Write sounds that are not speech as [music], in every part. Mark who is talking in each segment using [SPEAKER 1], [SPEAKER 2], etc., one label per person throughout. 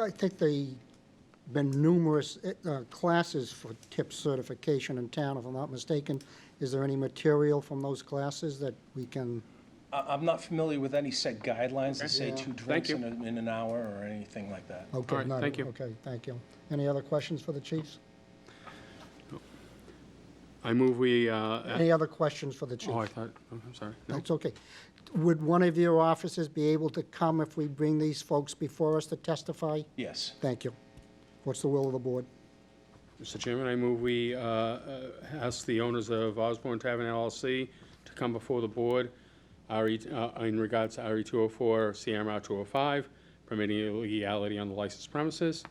[SPEAKER 1] I think they, been numerous uh, classes for tip certification in town, if I'm not mistaken. Is there any material from those classes that we can?
[SPEAKER 2] I, I'm not familiar with any set guidelines that say two drinks
[SPEAKER 3] you.
[SPEAKER 2] in, a- in an hour or anything like that.
[SPEAKER 1] okay,
[SPEAKER 3] All right,
[SPEAKER 1] none.
[SPEAKER 3] thank you.
[SPEAKER 1] Okay, thank you. Any other questions for the chiefs?
[SPEAKER 3] I move we, uh,
[SPEAKER 1] Any other questions for the chiefs?
[SPEAKER 3] oh, I thought, oh, I'm sorry. No.
[SPEAKER 1] That's okay. Would one of your officers be able to come if we bring these folks before us to testify?
[SPEAKER 2] Yes.
[SPEAKER 1] Thank you. What's the will of the board?
[SPEAKER 3] Mr. Chairman, I move we uh, uh, ask the owners of Osborne Tavern LLC to come before the board RE uh, in regards to RE 204, CMR 205, permitting illegality on the licensed premises,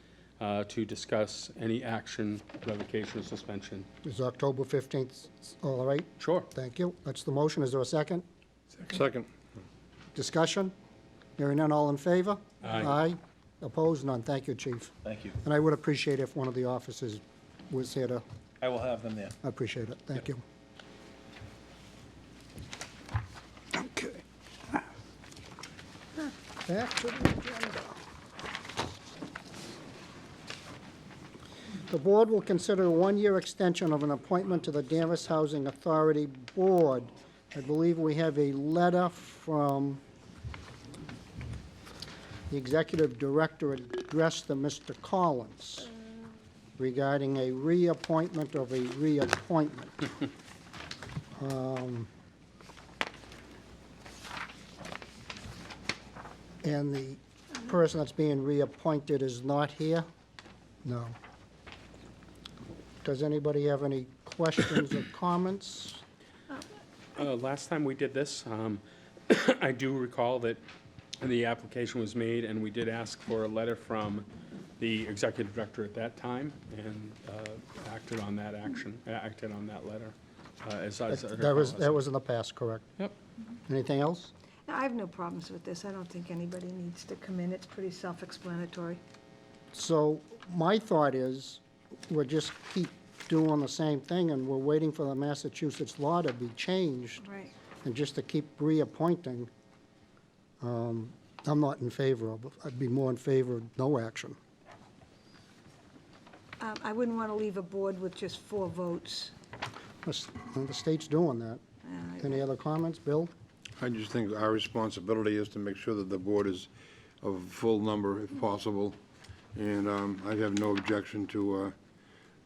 [SPEAKER 3] uh, to discuss any action, revocation, or suspension.
[SPEAKER 1] Is October 15th all right?
[SPEAKER 3] Sure.
[SPEAKER 1] Thank you. That's the motion. Is there a second?
[SPEAKER 4] Second.
[SPEAKER 1] Discussion? Hearing none, all in favor?
[SPEAKER 3] Aye.
[SPEAKER 1] Opposed? None. Thank you, Chief.
[SPEAKER 2] Thank you.
[SPEAKER 1] And I would appreciate if one of the officers was here to,
[SPEAKER 2] I will have them there.
[SPEAKER 1] I appreciate it. Thank you. Okay. Back to the agenda. The board will consider a one-year extension of an appointment to the Danvers Housing Authority Board. I believe we have a letter from the executive director addressed to Mr. Collins regarding a reappointment of a reappointment. Um, And the person that's being reappointed is not here? No. Does anybody have any questions or comments?
[SPEAKER 3] Uh, Last time we did this, um, [coughs] I do recall that the application was made, and we did ask for a letter from the executive director at that time, and uh, acted on that action, uh, acted on that letter, uh, as I as I
[SPEAKER 1] That was,
[SPEAKER 3] recall.
[SPEAKER 1] that was in the past, correct?
[SPEAKER 3] Yep.
[SPEAKER 1] Anything else?
[SPEAKER 5] No, I have no problems with this. I don't think anybody needs to come in. It's pretty self-explanatory.
[SPEAKER 1] So my thought is, we'll just keep doing the same thing, and we're waiting for the Massachusetts law to be changed.
[SPEAKER 5] Right.
[SPEAKER 1] and just to keep reappointing, um, I'm not in favor of, I'd be more in favor of no action.
[SPEAKER 5] Um, I wouldn't want to leave a board with just four votes.
[SPEAKER 1] The s- The state's doing that. Any other comments? Bill?
[SPEAKER 4] I just think our responsibility is to make sure that the board is of full number if possible. And um, I have no objection to uh,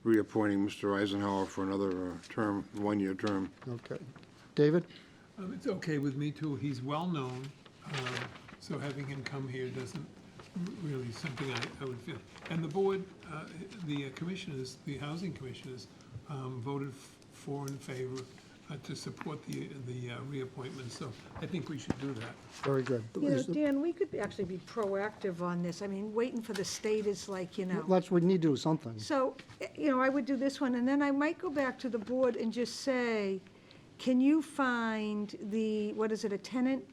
[SPEAKER 4] reappointing Mr. Eisenhower for another uh, term, one-year term.
[SPEAKER 1] Okay. David?
[SPEAKER 6] Um, It's okay with me too, he's well-known, um, so having him come here doesn't really something I, I would feel. And the board, uh, the commissioners, the housing commissioners um, voted f- for in favor uh, to support the, the uh, reappointment, so I think we should do that.
[SPEAKER 1] Very good.
[SPEAKER 5] You know,
[SPEAKER 1] Is the-
[SPEAKER 5] Dan, we could actually be proactive on this. I mean, waiting for the state is like, you know.
[SPEAKER 1] Let's, we need to do something.
[SPEAKER 5] So, eh, you know, I would do this one, and then I might go back to the board and just say, can you find the, what is it, a tenant?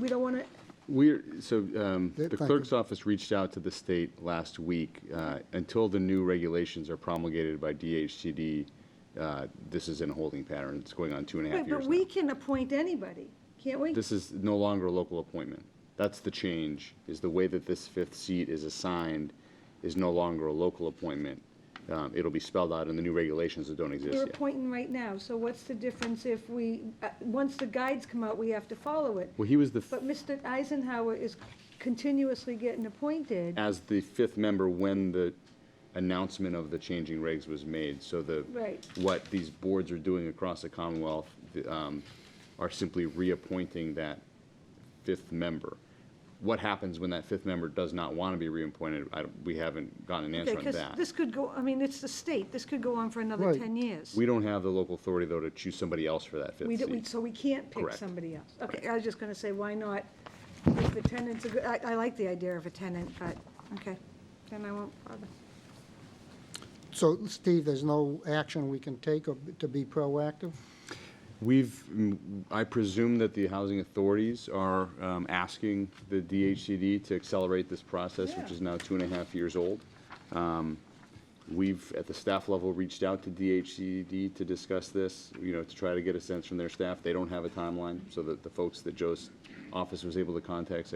[SPEAKER 5] We don't want to,
[SPEAKER 7] We're, so um,
[SPEAKER 1] Yeah,
[SPEAKER 7] the
[SPEAKER 1] thank you.
[SPEAKER 7] clerk's office reached out to the state last week. uh, Until the new regulations are promulgated by DHCD, uh, this is in a holding pattern. It's going on two and a half
[SPEAKER 5] Wait,
[SPEAKER 7] years
[SPEAKER 5] but we
[SPEAKER 7] now.
[SPEAKER 5] can appoint anybody, can't we?
[SPEAKER 7] This is no longer a local appointment. That's the change, is the way that this fifth seat is assigned is no longer a local appointment. Um, It'll be spelled out in the new regulations that don't exist
[SPEAKER 5] We're
[SPEAKER 7] yet.
[SPEAKER 5] appointing right now, so what's the difference if we, uh, once the guides come out, we have to follow it?
[SPEAKER 7] Well, he was the, f-
[SPEAKER 5] But Mr. Eisenhower is continuously getting appointed,
[SPEAKER 7] as the fifth member when the announcement of the changing regs was made, so the.
[SPEAKER 5] Right.
[SPEAKER 7] What these boards are doing across the Commonwealth the, um, are simply reappointing that fifth member. What happens when that fifth member does not want to be reappointed? I, don't- we haven't gotten an answer on
[SPEAKER 5] because
[SPEAKER 7] that.
[SPEAKER 5] this could go, I mean, it's the state, this could go on for another
[SPEAKER 1] Right.
[SPEAKER 5] 10 years.
[SPEAKER 7] We don't have the local authority, though, to choose somebody else for that
[SPEAKER 5] We
[SPEAKER 7] fifth
[SPEAKER 5] don't- we-
[SPEAKER 7] seat.
[SPEAKER 5] So we can't pick
[SPEAKER 7] Correct.
[SPEAKER 5] somebody else. Okay, I was just gonna say, why not, if the tenant's a good, I, I like the idea of a tenant, but, okay, then I won't bother.
[SPEAKER 1] So, Steve, there's no action we can take or to be proactive?
[SPEAKER 7] We've, mm, I presume that the housing authorities are um, asking the DHCD to accelerate this process, which
[SPEAKER 5] Yeah.
[SPEAKER 7] is now two and a half years old. Um, We've, at the staff level, reached out to DHCD to discuss this, you know, to try to get a sense from their staff. They don't have a timeline, so that the folks that Joe's office was able to contact said,